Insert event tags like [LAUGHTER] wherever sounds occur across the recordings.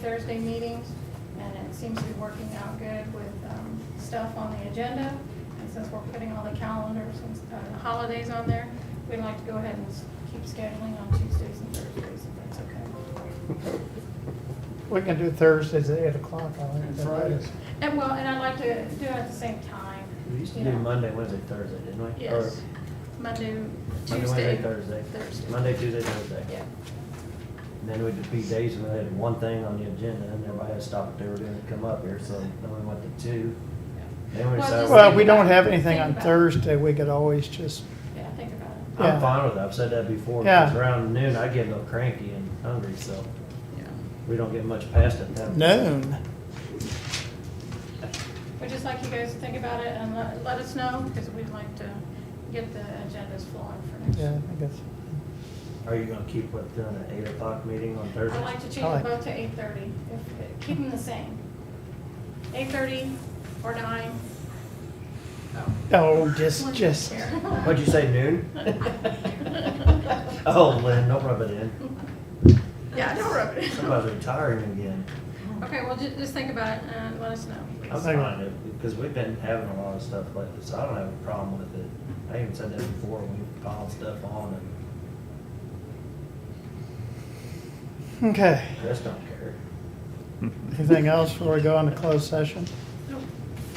Thursday meetings, and it seems to be working out good with um, stuff on the agenda. And since we're putting all the calendars and uh, holidays on there, we'd like to go ahead and s- keep scheduling on Tuesdays and Thursdays, if that's okay. We can do Thursdays at eight o'clock, I think. And that Fridays. is. And well, and I'd like to do it at the same time. We used to you do know. Monday, Wednesday, Thursday, didn't we? Or Yes, Monday, Monday, Tuesday. Wednesday, Thursday. Thursday. Monday, Tuesday, Thursday. Yeah, And then we'd be days when they had one thing on the agenda and everybody had stopped what they were doing to come up here, so then we went to two. Then we Well, decided, just- Well, we I'm think don't about it. have anything Think on about it. Thursday, we could always just, yeah, think about it. yeah. fine with that. I've said that before. Yeah. It's around noon, I get a little cranky and hungry, so Yeah. we don't get much past it. then. noon. We'd just like you guys to think about it and let let us know, because we'd like to get the agendas flowing for next Yeah, I guess. Are you gonna keep what, doing an eight o'clock meeting on Thursday? I'd like to I change like- it both to eight thirty, keep them the same. Eight thirty or nine. Oh, just, just, What'd you [LAUGHS] say, noon? Oh, Lynn, don't rub it in. Yeah, don't rub it. Somebody's retiring again. Okay, well, ju- just think about it and let us know. I'm fine, it- because we've been having a lot of stuff like this, I don't have a problem with it. I even said that before, we piled stuff on and okay. Chris don't care. Anything else before we go into closed session? Nope.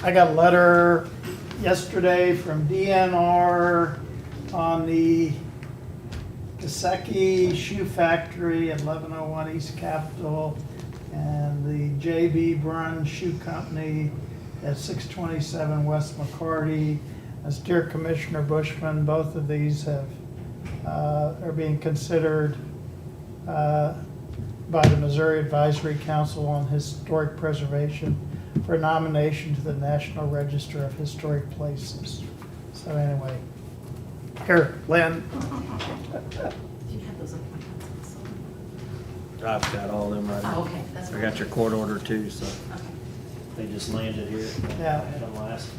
I got a letter yesterday from DNR on the Kaseki Shoe Factory at 1101 East Capitol and the JB Brun Shoe Company at 627 West McCarty. As dear Commissioner Bushman, both of these have, uh, are being considered uh, by the Missouri Advisory Council on Historic Preservation for nomination to the National Register of Historic Places. So anyway, here, Lynn, Do you have those on my I've got all them right console? Oh, now. okay, that's. I got your court order too, so Okay. they just landed here. Yeah. Had them last.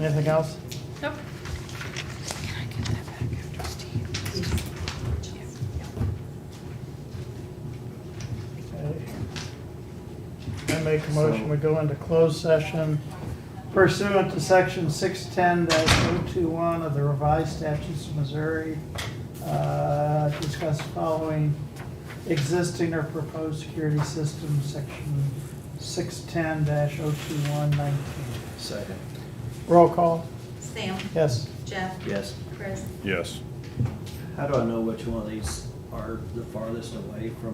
anything else? Nope. Okay. I make a motion, we go into closed session pursuant to section six ten 21 of the revised statutes of Missouri. Uh, discuss following existing or proposed security system, section six ten oh 21 19 Second. Roll call, Sam, yes. Jeff, Yes. Chris. Yes. How do I know which one of these are the farthest away from